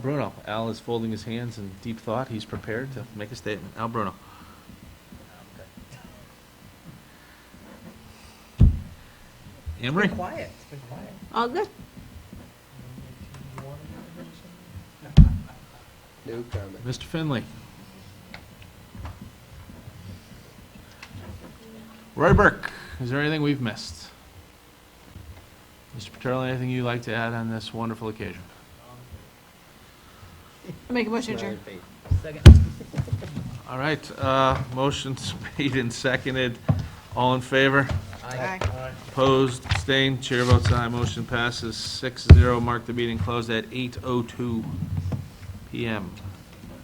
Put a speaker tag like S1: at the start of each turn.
S1: Bruno, Al is folding his hands in deep thought. He's prepared to make a statement. Al Bruno. Emery?
S2: Been quiet, it's been quiet.
S3: All good.
S4: No comment.
S1: Mr. Finley? Roy Burke, is there anything we've missed? Mr. Paterno, anything you'd like to add on this wonderful occasion?
S3: Make a motion adjourn.
S1: All right, uh, motion's made and seconded. All in favor?
S3: Aye.
S1: Opposed, abstained, chair votes aye, motion passes six zero. Mark the meeting closed at eight oh two PM.